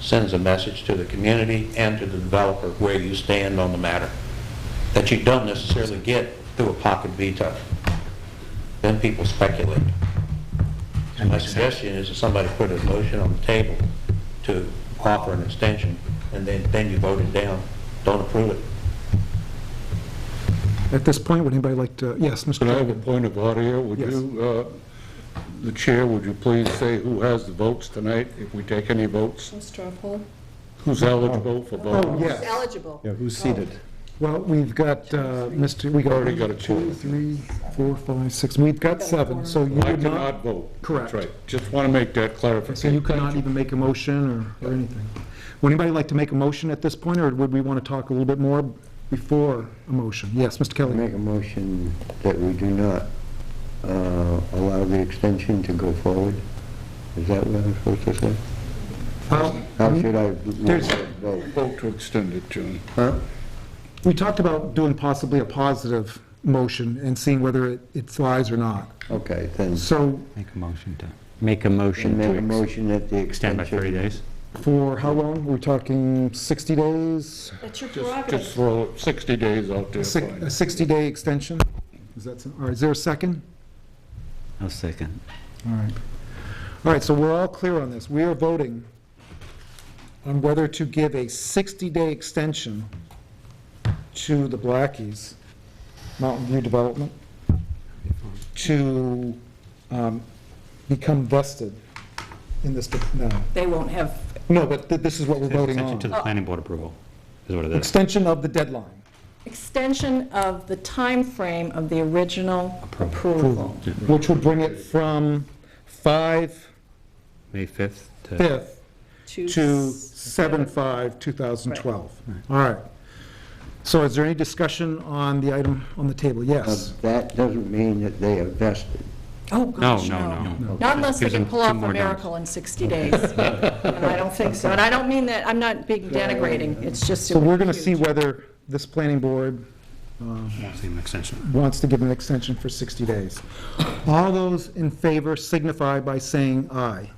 sends a message to the community and to the developer where you stand on the matter, that you don't necessarily get through a pocket veto. Then people speculate. So my suggestion is that somebody put a motion on the table to offer an extension, and then, then you vote it down. Don't approve it. At this point, would anybody like to, yes, Mr. Can I have a Duncan. point of order here? Would Yes. you, uh, the chair, would you please say who has the votes tonight, if we take any votes? Straw poll? Who's eligible for Oh, vote? yes. Eligible. Yeah, who's seated? Well, we've got, uh, Mr., we got... Already got a Two, quorum. three, four, five, six, we've got seven, so you I would not, cannot vote. Correct. That's right. Just want to make that so you clarification. could not even make a motion or, or anything. Would anybody like to make a motion at this point, or would we want to talk a little bit more before a motion? Yes, Mr. I Kelly? Make a motion that we do not uh, allow the extension to go forward? Is that what I'm supposed to say? Well, Mm-hmm. How should I There's- vote? Vote to extend it, June. Huh? We talked about doing possibly a positive motion and seeing whether it- it flies or not. Okay, then, So Make a motion to, make a motion make a to ex- motion that the extend extension... by 30 days. for how long? We're talking 60 days? That's your Just just prerogative. throw 60 days out there. Six- fine. A 60-day extension? Is that, all right, is there a second? I'll second. All right. All right, so we're all clear on this. We are voting on whether to give a 60-day extension to the Blackies Mountain View Development to um, become vested in this, no, They won't have, no, but th- this is what we're voting Extension to on. the planning board approval, is what it is. Extension of the deadline. extension of the time frame of the original approval. Which would bring it from 5/5 May 5th to, to 7/5/2012. All right. So is there any discussion on the item on the table? Now, Yes. That doesn't mean that they are vested. Oh, no, gosh, no, no. Not unless they Gives can them pull two off more a days. miracle in 60 days. And I don't think so. And I don't mean that, I'm not being denigrating, it's just. So it we're would be going to see huge. whether this planning board uh, Won't see an extension. wants to give an extension for 60 days. All those in favor signify by saying aye.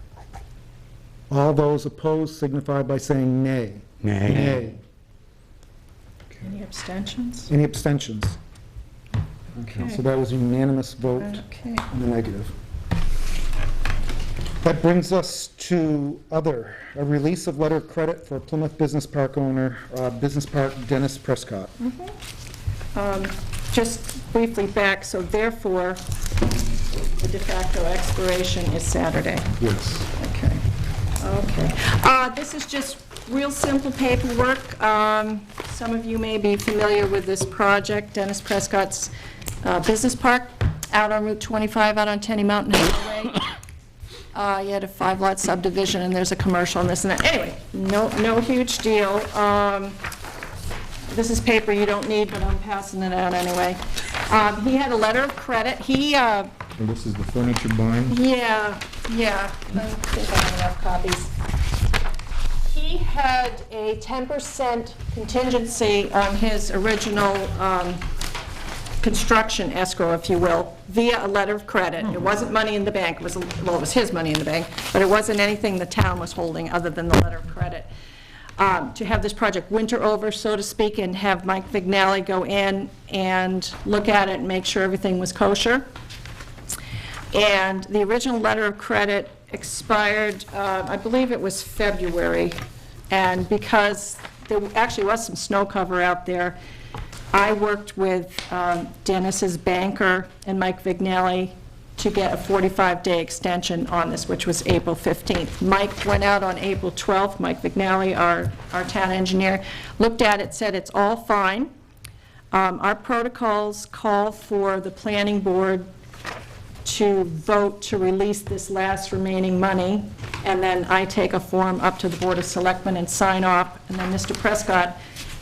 All those opposed signify by saying nay. Nay. Any abstentions? Any abstentions? So Okay. that was a unanimous vote. Okay. on the negative. That brings us to other, a release of letter of credit for Plymouth Business Park owner, uh, Business Park Dennis Prescott. Um, Just briefly back, so therefore, the de facto expiration is Saturday. Yes. Okay, okay. Uh, This is just real simple paperwork. Um, Some of you may be familiar with this project, Dennis Prescott's uh, Business Park, out on Route 25, out on Tenny Mountain Highway. Uh, You had a five-lot subdivision, and there's a commercial and this and that. Anyway, no, no huge deal. Um, this is paper you don't need, but I'm passing it out anyway. Um, He had a letter of credit. He, uh, And this is the furniture barn? yeah, yeah, I think I have enough copies. He had a 10% contingency on his original um, construction escrow, if you will, via a letter of credit. It wasn't money in the bank, it was, well, it was his money in the bank, but it wasn't anything the town was holding other than the letter of credit. Um, To have this project winter over, so to speak, and have Mike Vignali go in and look at it and make sure everything was kosher. And the original letter of credit expired, uh, I believe it was February, and because there actually was some snow cover out there, I worked with um, Dennis's banker and Mike Vignelli to get a 45-day extension on this, which was April 15th. Mike went out on April 12th, Mike Vignelli, our our town engineer, looked at it, said it's all fine. Um, Our protocols call for the planning board to vote to release this last remaining money, and then I take a form up to the Board of Selectmen and sign off, and then Mr. Prescott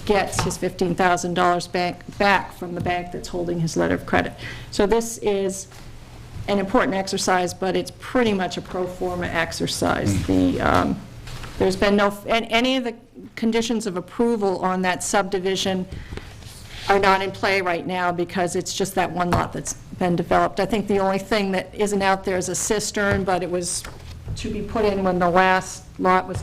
gets his $15,000 back, back from the bank that's holding his letter of credit. So this is an important exercise, but it's pretty much a pro forma exercise. The, um, there's been no, and any of the conditions of approval on that subdivision are not in play right now because it's just that one lot that's been developed. I think the only thing that isn't out there is a cistern, but it was to be put in when the last lot was